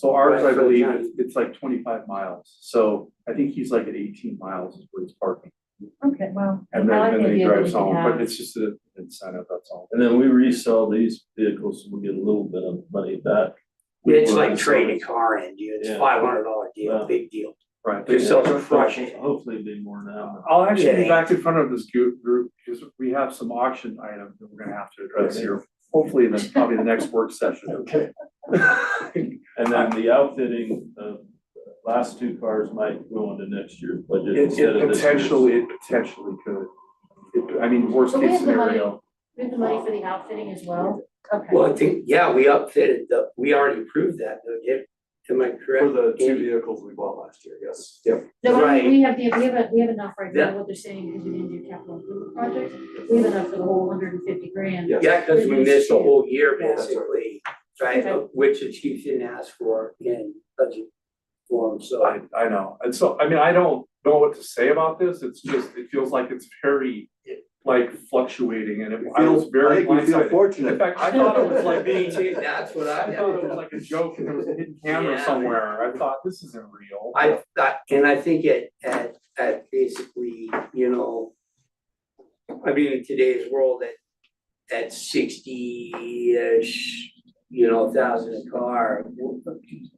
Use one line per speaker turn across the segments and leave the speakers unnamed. parks, I
Right, but
believe,
not-
it's- it's like twenty-five miles, so I think he's like at eighteen miles is where he's parking.
Okay, well.
And
I like
then, and
the
then he
idea that
drives
we could
home, but
have-
it's just an incentive, that's all.
And then we resell these vehicles, and we get a little bit of money back.
It's like trading a car in, dude. it's
Yeah.
five hundred dollar
Wow.
deal, big deal.
Right.
They sell for
Hopefully-
crushing.
Hopefully it'd be more now.
I'll actually be
Yeah.
back in front of this group, group, because we have some auction items that we're gonna have to address
Okay.
here, hopefully in the, probably the next work session.
Okay. And then the outfitting of the last two cars might go into next year's budget
It,
instead
it
of this year's.
potentially, it potentially could, It- I mean, worst
But we
case
have the money.
scenario,
We have the money for the outfitting as well, okay.
Well, I think, yeah, we upfitted the, we already approved that, though, yeah. Am I
For
correct?
the two vehicles we bought last year, yes. Yep.
No, but I
right.
mean, we have the, we have, a- we have enough right now,
Yeah.
what they're saying, because we didn't do capital improvement projects, we have enough for the whole hundred and fifty grand.
Yes.
Yeah, because we missed a whole year
Yeah.
basically, right,
Okay.
which the chief didn't ask for in budget form, so.
I, I know, and so, I mean, I don't know what to say about this, it's just, it feels like it's very, like fluctuating, and it, I was very
I think we feel
blindsided. In
fortunate.
fact, I thought it was like being,
Dude, that's what
I thought it was
I,
like a joke, and there was a hidden camera
Yeah.
somewhere, I thought, this isn't real.
I thought, and I think at, at, at basically, you know, I mean, in today's world, at, at sixty-ish, you know, thousand a car,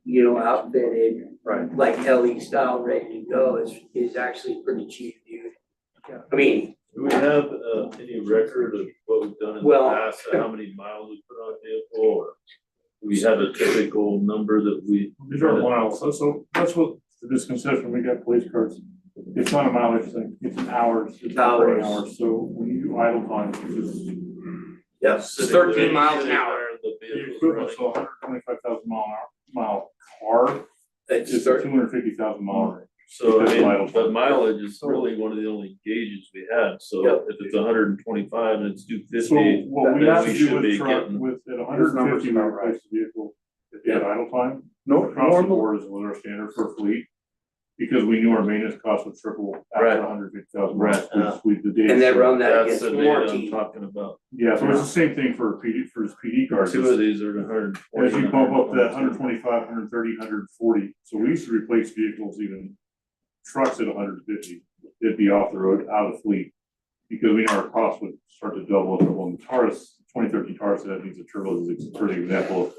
you know, outfitted,
Right,
like LE style, ready to go, is, is actually pretty cheap, dude.
Yeah.
I mean,
Do we have uh any record of what we've done in the
Well-
past, or how many miles we put on a vehicle or? We have a typical number that we.
These are miles, so, so that's what the misconception, we got police cars. It's not a mileage thing, it's an hours, it's operating
Hours.
hours, so when you do idle time, it's just.
Yes.
Sitting
Thirteen
there,
miles an
sitting
hour.
there, The
The
vehicle's
equivalent's
running.
a hundred twenty-five thousand mile an hour, mile car,
it's
it's
cer-
a two hundred fifty thousand mile range.
So
Because
I
mile-
mean, but mileage is really one of the only gauges we have, so
Yep.
if it's hundred and twenty-five and it's two
So
fifty,
what we
then
have
we
to
should
do
be
with truck,
getting-
with at
Your
hundred and
number's
fifty, we
about right.
replace the vehicle if you had idle time.
no,
Across the
normal,
board is what our standard for fleet, because we knew our maintenance cost would triple
Right.
after a hundred fifty thousand.
Right, uh,
We, we, the data.
and then run that
that's
against
the data I'm
warranty.
talking about.
Yeah, so it's the same thing for PD, for his PD cards.
Two of these are hundred and forty.
As you bump up that hundred twenty-five, hundred thirty, hundred forty, so we used to replace vehicles even trucks at hundred fifty, it'd be off the road, out of fleet. Because we know our costs would start to double up on Taurus, twenty thirteen Taurus, that means a turbo is a perfect example of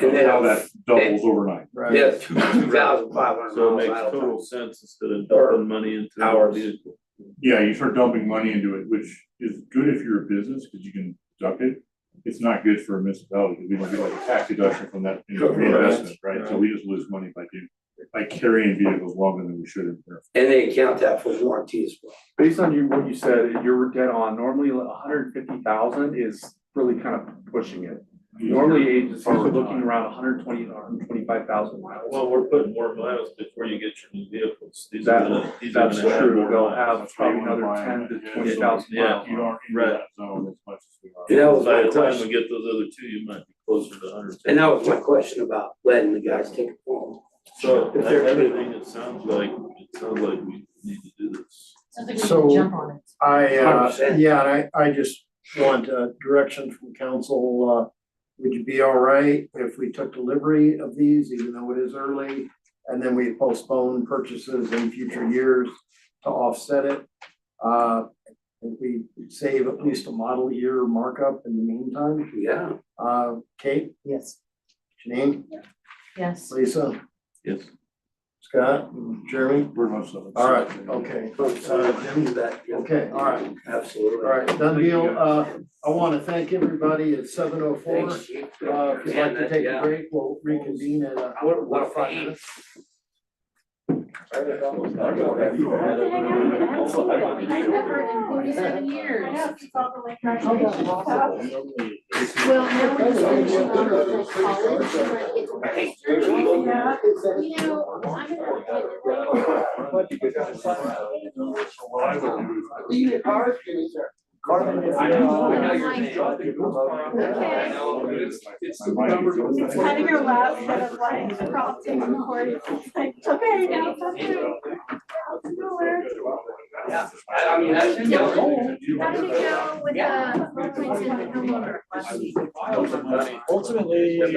And then
how that doubles overnight.
Yeah, two thousand five hundred
So
miles
it makes
idle time.
total sense instead of dumping money into a
Hours.
vehicle.
Yeah, you start dumping money into it, which is good if you're a business, because you can duck it. It's not good for a municipality, because we don't get like a tax deduction from that investment, right? So we just lose money by doing, by carrying vehicles longer than we should in there.
And they account that for warranty as well.
based on you, what you said, you're dead on, normally hundred fifty thousand is really kind of pushing it. Normally agencies are looking around 120, 125,000 miles.
Well, we're putting more miles before you get your new vehicles. These are
That-
gonna, these are
That's
gonna have
true,
more
they'll
miles.
have probably another ten to twenty thousand
Yeah.
miles.
You aren't in
Right.
that zone as much as we are.
And that was
By
my
the time we
question,
get those other two, you might be closer to hundred.
and that was my question about letting the guys take it home.
So
If
that's
they're-
everything, it sounds like, it sounds like we need to do this.
Sounds like we should
So-
jump on it.
I, uh,
100%.
yeah, and I, I just want uh, direction from council, uh, would you be all right if we took delivery of these, even though it is early? And then we postpone purchases in future years to offset it? Uh, if we save at least a model year markup in the meantime,
Yeah,
uh, Kate,
Yes.
Janine,
Yes.
Lisa,
Yes.
Scott, Jeremy?
We're much of a-
All right, okay,
so do that, yeah,
okay, all right,
absolutely.
all right, done deal, uh, I wanna thank everybody, it's seven oh four.
Thanks, Chief.
Uh, if you'd like
Yeah,
to take a
yeah.
break, we'll reconvene at uh,
What- what
about five
if-
minutes.
Forty-seven years.
Well,
Well, now we're just gonna be on the college, we're gonna get to register. You know, I'm gonna.
What I would do is.
I know, I know your name.
Okay.
My wife is-
It's kind of your last set of like prompting recording, it's like, okay, now it's up to you.
Yeah, I- I mean, that's-
How did it go with, uh,
Yeah.
Brooklyn's in the homeowner last week?
Ultimately,